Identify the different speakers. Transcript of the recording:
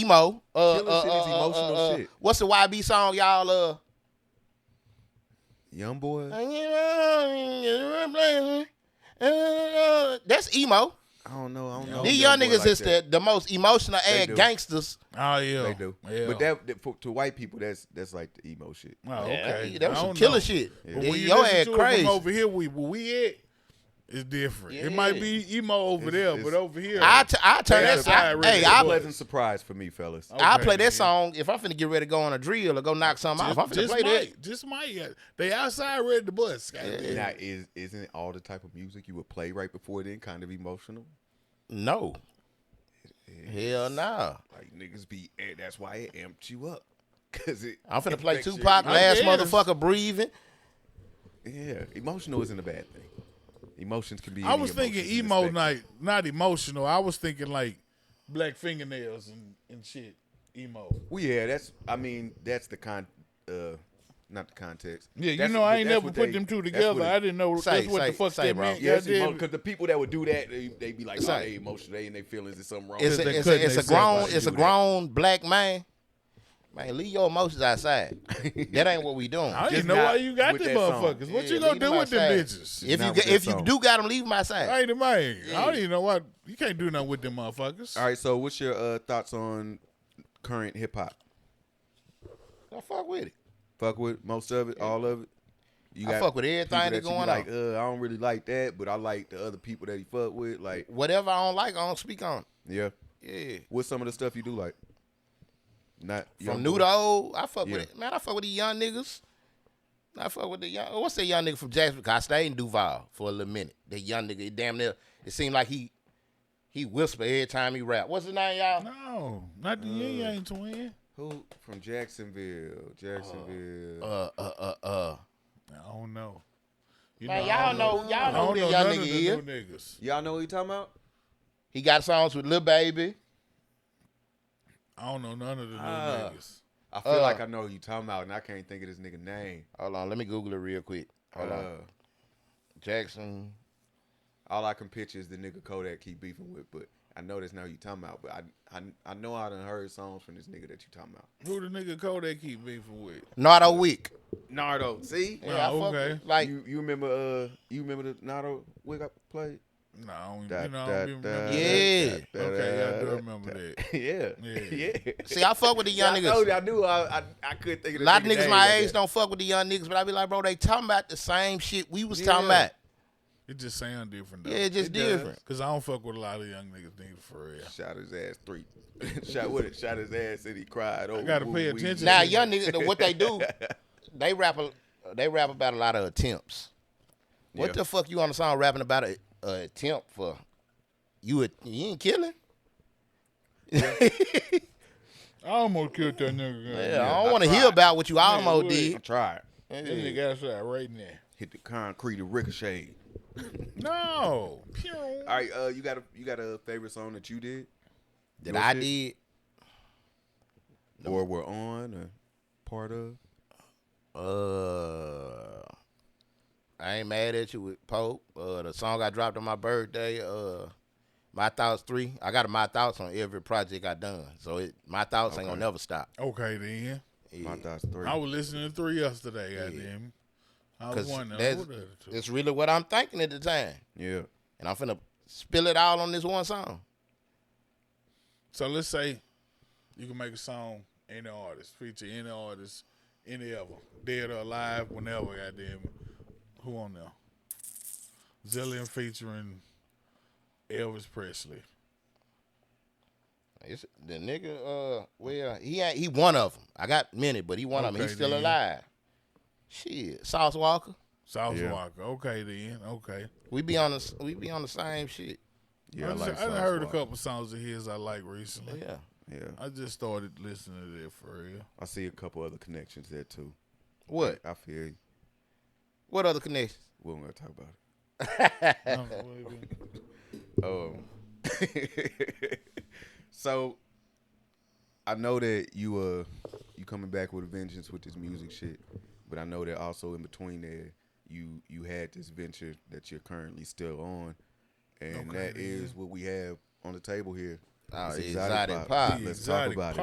Speaker 1: emo. Uh,
Speaker 2: Killer
Speaker 1: uh,
Speaker 2: shit is
Speaker 1: uh, uh,
Speaker 2: emotional
Speaker 1: uh, uh,
Speaker 2: shit.
Speaker 1: What's the YB song y'all uh?
Speaker 2: Young boy.
Speaker 1: That's emo.
Speaker 2: I don't know. I don't know.
Speaker 1: These young
Speaker 2: Young Boy
Speaker 1: niggas
Speaker 2: like
Speaker 1: is
Speaker 2: that.
Speaker 1: the, the most emotional ass
Speaker 2: do.
Speaker 1: gangsters.
Speaker 3: Oh yeah,
Speaker 2: They do.
Speaker 3: Yeah.
Speaker 2: But that, that for, to white people, that's that's like the emo shit.
Speaker 3: oh,
Speaker 1: Yeah,
Speaker 3: okay,
Speaker 1: that was
Speaker 3: I
Speaker 1: some
Speaker 3: don't
Speaker 1: killer
Speaker 3: know.
Speaker 1: shit.
Speaker 3: But
Speaker 1: Yeah,
Speaker 3: when you
Speaker 1: your
Speaker 3: listen
Speaker 1: ass
Speaker 3: to it from
Speaker 1: crazy.
Speaker 3: over here, we where we at is different. It might be emo over
Speaker 2: It's-
Speaker 3: there,
Speaker 2: it's-
Speaker 3: but over here,
Speaker 1: I, t- I turn
Speaker 3: They
Speaker 1: that.
Speaker 3: outside
Speaker 1: I-
Speaker 3: really
Speaker 1: Hey,
Speaker 2: It's a
Speaker 1: I
Speaker 3: was.
Speaker 2: pleasant surprise for me, fellas.
Speaker 1: I
Speaker 3: Okay,
Speaker 1: play that
Speaker 3: man.
Speaker 1: song if I'm finna get ready to go on a drill or go knock something off. I'm finna
Speaker 3: just
Speaker 1: play that.
Speaker 3: might, just might. uh, They outside read the bus. goddamn.
Speaker 2: Now, is isn't all the type of music you would play right before then kind of emotional?
Speaker 1: No. Hell nah.
Speaker 2: Like niggas be, eh, that's why it amped you up, cause it.
Speaker 1: I'm finna
Speaker 2: it
Speaker 1: play
Speaker 2: affects your
Speaker 1: Tupac,
Speaker 3: I
Speaker 1: last
Speaker 3: guess.
Speaker 1: motherfucker breathing.
Speaker 2: Yeah, emotional isn't a bad thing. Emotions can be.
Speaker 3: I
Speaker 2: any
Speaker 3: was thinking
Speaker 2: emotions in the
Speaker 3: emo
Speaker 2: spectrum.
Speaker 3: night, not emotional. I was thinking like black fingernails and, and shit. Emo.
Speaker 2: Well, yeah, that's. I mean, that's the con. Uh, not the context.
Speaker 3: Yeah, you
Speaker 2: That's-
Speaker 3: know I ain't
Speaker 2: that's
Speaker 3: never
Speaker 2: what
Speaker 3: put
Speaker 2: they-
Speaker 3: them two
Speaker 2: that's
Speaker 3: together.
Speaker 2: what it-
Speaker 3: I didn't know
Speaker 1: Say,
Speaker 3: that's what
Speaker 1: say,
Speaker 3: the fuck
Speaker 1: say,
Speaker 3: that
Speaker 1: bro.
Speaker 3: meant.
Speaker 2: Yeah, it's
Speaker 3: goddamn.
Speaker 2: because the people that would do that, they, they be like, oh,
Speaker 1: Say.
Speaker 2: they emotional, they in their feelings, there's something wrong.
Speaker 1: It's
Speaker 2: with
Speaker 1: a,
Speaker 3: they
Speaker 2: them.
Speaker 1: it's
Speaker 3: couldn't
Speaker 1: a, it's a
Speaker 3: accept why
Speaker 1: grown
Speaker 3: she
Speaker 1: it's a
Speaker 2: do that.
Speaker 1: grown black man. Man, leave your emotions outside. that ain't what we doing.
Speaker 3: I
Speaker 2: just
Speaker 3: didn't know
Speaker 2: not
Speaker 3: why you got
Speaker 2: with
Speaker 3: them
Speaker 2: that song.
Speaker 3: motherfuckers. What
Speaker 1: Yeah,
Speaker 3: you
Speaker 1: leave
Speaker 3: gonna do
Speaker 1: them
Speaker 3: with them
Speaker 1: outside.
Speaker 3: bitches?
Speaker 1: If you
Speaker 2: Not
Speaker 1: get,
Speaker 2: with
Speaker 1: if
Speaker 2: that
Speaker 1: you
Speaker 2: song.
Speaker 1: do got them, leave my side.
Speaker 3: I ain't a man. I don't even know why you can't do nothing with them motherfuckers.
Speaker 2: All right, so what's your uh, thoughts on current hip hop?
Speaker 1: Don't fuck with it.
Speaker 2: Fuck with most of it, all of it. You
Speaker 1: I fuck with everything
Speaker 2: people
Speaker 1: that
Speaker 2: you be
Speaker 1: going on.
Speaker 2: Like, uh, I don't really like that, but I like the other people that he fuck with. Like,
Speaker 1: Whatever I don't like, I don't speak on.
Speaker 2: yeah.
Speaker 1: Yeah.
Speaker 2: What's some of the stuff you do like? Not
Speaker 1: From
Speaker 2: Young
Speaker 1: new
Speaker 2: Boy?
Speaker 1: to old, I fuck
Speaker 2: Yeah.
Speaker 1: with it. Man, I fuck with the young niggas. I fuck with the young. What's that young nigga from Jacksonville? 'Cause I stayed in Duval for a little minute. That young nigga, it damn near, it seemed like he he whisper every time he rap. What's his name, y'all?
Speaker 3: No, not the yin
Speaker 2: Uh.
Speaker 3: yang twin.
Speaker 2: Who from Jacksonville? Jacksonville.
Speaker 1: Uh, uh, uh, uh.
Speaker 3: I don't know. You
Speaker 1: Man,
Speaker 3: I
Speaker 1: y'all
Speaker 3: don't
Speaker 1: know,
Speaker 3: I
Speaker 1: y'all know
Speaker 3: don't
Speaker 1: who that
Speaker 3: know
Speaker 1: young
Speaker 3: none of
Speaker 1: nigga
Speaker 3: the
Speaker 1: is.
Speaker 3: new niggas.
Speaker 2: Y'all know what you talking about?
Speaker 1: He got songs with Lil Baby.
Speaker 3: I don't know none of the new
Speaker 2: Ah.
Speaker 3: niggas.
Speaker 2: I feel
Speaker 1: Uh.
Speaker 2: like I know who you talking about, and I can't think of this nigga name.
Speaker 1: Hold on, let me Google it real quick. Hold on,
Speaker 2: Uh,
Speaker 1: Jackson.
Speaker 2: all I can picture is the nigga Kodak keep beefing with, but I know that's not who you talking about. But I, I, I know I done heard songs from this nigga that you talking about.
Speaker 3: Who the nigga Kodak keep beefing with?
Speaker 1: Nardo Week.
Speaker 2: Nardo, see,
Speaker 1: Yeah, I
Speaker 3: Oh,
Speaker 1: fuck
Speaker 3: okay.
Speaker 1: with- like
Speaker 2: you, you remember uh, you remember the Nardo wig I played?
Speaker 3: No, I don't,
Speaker 2: Da,
Speaker 3: you know, I
Speaker 2: da,
Speaker 3: don't even remember.
Speaker 2: da,
Speaker 3: that.
Speaker 1: Yeah.
Speaker 2: da, da,
Speaker 3: Okay, I do
Speaker 2: da,
Speaker 3: remember
Speaker 2: da.
Speaker 3: that.
Speaker 2: yeah,
Speaker 3: Yeah.
Speaker 2: yeah.
Speaker 1: See, I fuck with the young
Speaker 2: I
Speaker 1: niggas.
Speaker 2: told you, I knew I, I, I couldn't think of
Speaker 1: A
Speaker 2: the
Speaker 1: lot of niggas
Speaker 2: name
Speaker 1: my
Speaker 2: like
Speaker 1: age
Speaker 2: that.
Speaker 1: don't fuck with the young niggas, but I be like, bro, they talking about the same shit we was talking
Speaker 2: Yeah.
Speaker 1: about.
Speaker 3: It just sound different though.
Speaker 1: Yeah, it's just
Speaker 2: It does.
Speaker 1: different.
Speaker 3: Cause I don't fuck with a lot of young niggas, nigga, for real.
Speaker 2: Shot his ass three. shot what? it- Shot his ass and he cried. Oh,
Speaker 3: gotta
Speaker 2: woo,
Speaker 3: pay
Speaker 2: wee.
Speaker 3: attention.
Speaker 1: Now, young niggas, the- what they do, they rap, a, they rap about a lot of attempts. What
Speaker 2: Yeah.
Speaker 1: the fuck you on the song rapping about a, a attempt for? You a, you ain't killing?
Speaker 3: I almost killed that nigga.
Speaker 1: Yeah,
Speaker 3: goddamn.
Speaker 1: I don't want to hear
Speaker 2: tried.
Speaker 1: about what you almost
Speaker 3: would.
Speaker 1: did.
Speaker 2: Try.
Speaker 3: That nigga outside right now.
Speaker 2: Hit the concrete and ricochet.
Speaker 3: No. Pew.
Speaker 2: All right, uh, you got a you got a favorite song that you did
Speaker 1: That
Speaker 2: Your
Speaker 1: I
Speaker 2: shit?
Speaker 1: did.
Speaker 2: or were on or part of?
Speaker 1: Uh, I ain't mad at you with Pope. Uh, the song I dropped on my birthday. Uh, my thoughts three. I got a my thoughts on every project I done. So it my thoughts ain't gonna never stop.
Speaker 3: Okay then.
Speaker 2: My thoughts three.
Speaker 3: I was listening to three yesterday, goddamn. I was
Speaker 1: Cause
Speaker 3: wondering
Speaker 1: that's,
Speaker 3: who the other two.
Speaker 1: that's really what I'm thinking at the time,
Speaker 2: yeah.
Speaker 1: and I'm finna spill it all on this one song.
Speaker 3: So let's say you can make a song, any artist, feature any artist, any of them, dead or alive, whenever, goddamn. it. Who on there? Zillion featuring Elvis Presley.
Speaker 1: It's the nigga. Uh, well, he ain't, he one of them. I got many, but he one of them. He's
Speaker 3: Okay,
Speaker 1: still
Speaker 3: then.
Speaker 1: alive. Shit, Sauce Walker.
Speaker 3: South
Speaker 2: Yeah.
Speaker 3: Walker. Okay then. Okay.
Speaker 1: We be on the we be on the same shit.
Speaker 2: Yeah, I,
Speaker 3: I, just,
Speaker 2: like
Speaker 3: I done
Speaker 2: Sauce
Speaker 3: heard a
Speaker 2: Walker.
Speaker 3: couple songs of his I like recently.
Speaker 1: Yeah.
Speaker 2: Yeah.
Speaker 3: I just started listening to that for real.
Speaker 2: I see a couple other connections there too.
Speaker 1: What?
Speaker 2: I feel you.
Speaker 1: What other connections?
Speaker 2: we don't gonna talk about it.
Speaker 3: Um, what it be?
Speaker 2: Um, so I know that you uh you coming back with a vengeance with this music shit, but I know that also in between there you you had this venture that you're currently still on, and that is what we have on the table here.
Speaker 4: Oh,
Speaker 2: It's
Speaker 4: exotic,
Speaker 2: Exotic Pop.
Speaker 4: pop.
Speaker 2: Let's talk
Speaker 1: Exotic
Speaker 2: about it.